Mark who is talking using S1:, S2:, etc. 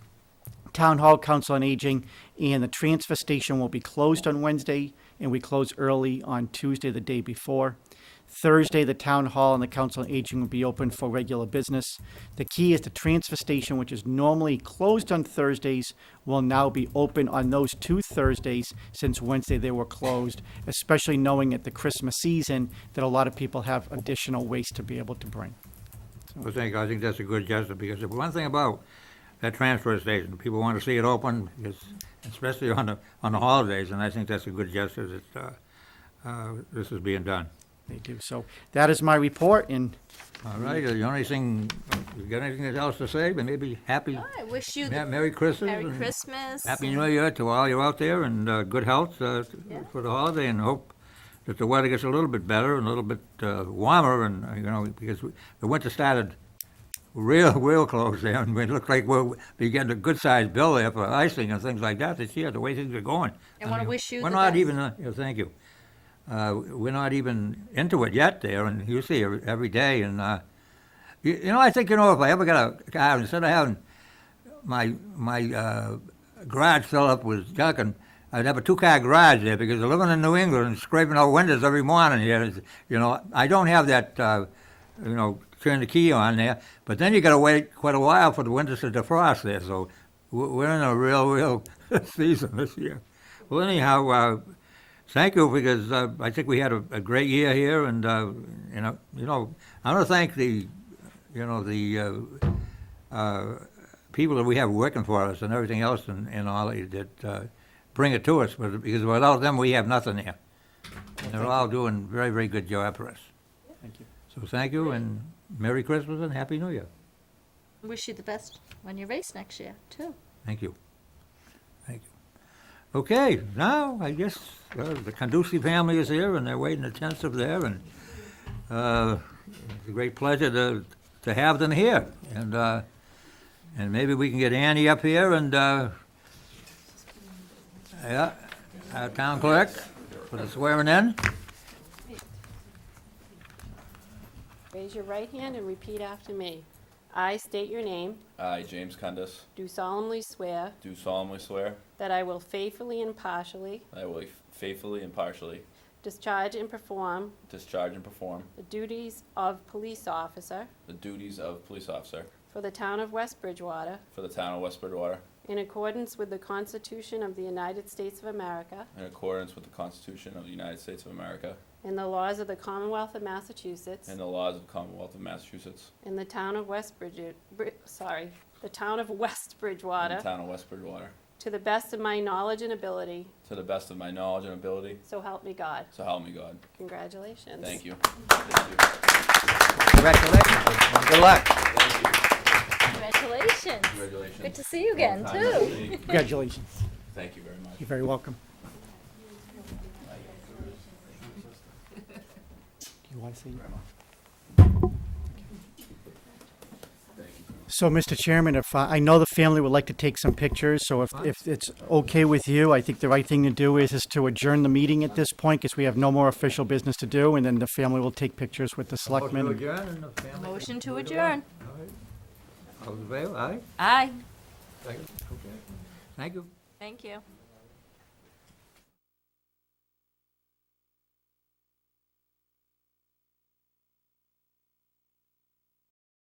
S1: Town Hall, Council on Aging, and the transfer station will be closed on Wednesday, and we close early on Tuesday, the day before. Thursday, the Town Hall and the Council on Aging will be open for regular business. The key is the transfer station, which is normally closed on Thursdays, will now be open on those two Thursdays since Wednesday they were closed, especially knowing at the Christmas season that a lot of people have additional waste to be able to bring.
S2: I think, I think that's a good gesture, because if one thing about that transfer station, people want to see it open, because- especially on the, on the holidays, and I think that's a good gesture that, uh, uh, this is being done.
S1: They do. So that is my report, and
S2: All right, the only thing, you got anything else to say, but maybe happy,
S3: I wish you
S2: Ma-
S3: the
S2: Merry Christmas.
S3: Merry
S2: and
S3: Christmas.
S2: Happy New Year to all you out there, and, uh, good health, uh, for the holiday, and hope that the weather gets a little bit better, and a little bit, uh, warmer, and, uh, you know, because we- the winter started real, real close there, and it looked like we're, we getting a good-sized bill there for icing and things like that this year, the way things are going.
S3: I wanna
S2: mean,
S3: wish you
S2: We're
S3: the
S2: not
S3: best.
S2: even, uh, yeah, thank you. Uh, we're not even into it yet there, and you see it every day, and, uh, you, you know, I think, you know, if I ever got a car, instead of having my, my, uh, garage filled up with junk, and I'd have a two-car garage there, because living in New England and scraping out windows every morning here, is, you know, I don't have that, uh, you know, turn the key on there, but then you gotta wait quite a while for the windows to defrost there, so we're, we're in a real, real season this year. Well, anyhow, uh, Thank you, because uh, I think we had a, a great year here, and uh, you know, you know, I want to thank the, you know, the uh, uh, people that we have working for us and everything else, and, and all that uh, bring it to us. But because without them, we have nothing here. And they're all doing very, very good job for us.
S1: thank you.
S2: So thank you, and Merry Christmas and Happy New Year.
S3: Wish you the best when you race next year too.
S2: Thank you. Thank you. Okay, now, I guess, uh, the Conducey family is here, and they're waiting attentive there, and, uh, it's a great pleasure to, to have them here, and, uh, and maybe we can get Annie up here and, uh, yeah, our town clerk for the swearing in.
S4: Raise your right hand and repeat after me. I state your name,
S5: I, James Cundis,
S4: do solemnly swear
S5: do solemnly swear
S4: that I will faithfully and impartially
S5: that I will faithfully and partially
S4: discharge and perform
S5: discharge and perform
S4: the duties of police officer
S5: the duties of police officer
S4: for the town of West Bridgewater
S5: for the town of West Bridgewater
S4: in accordance with the Constitution of the United States of America
S5: in accordance with the Constitution of the United States of America
S4: and the laws of the Commonwealth of Massachusetts
S5: and the laws of the Commonwealth of Massachusetts
S4: and the town of West Bridge, Bri- sorry, the town of West
S5: and
S4: Bridgewater
S5: the town of West Bridgewater,
S4: to the best of my knowledge and ability,
S5: to the best of my knowledge and ability,
S4: so help me God.
S5: so help me God.
S4: Congratulations.
S5: Thank you. Thank you.
S2: Congratulations, and good luck.
S3: Congratulations.
S5: Congratulations.
S3: Good to see you again too.
S5: too.
S1: Congratulations.
S5: Thank you very much.
S1: You're very welcome. Do you want to see? So, Mr. Chairman, if, uh, I know the family would like to take some pictures, so if, if it's okay with you, I think the right thing to do is, is to adjourn the meeting at this point, because we have no more official business to do, and then the family will take pictures with the selectmen.
S2: Motion to adjourn and the family-
S3: Motion to adjourn.
S2: All right. All in favor? Aye?
S3: Aye.
S2: Second? Okay. Thank you.
S3: Thank you.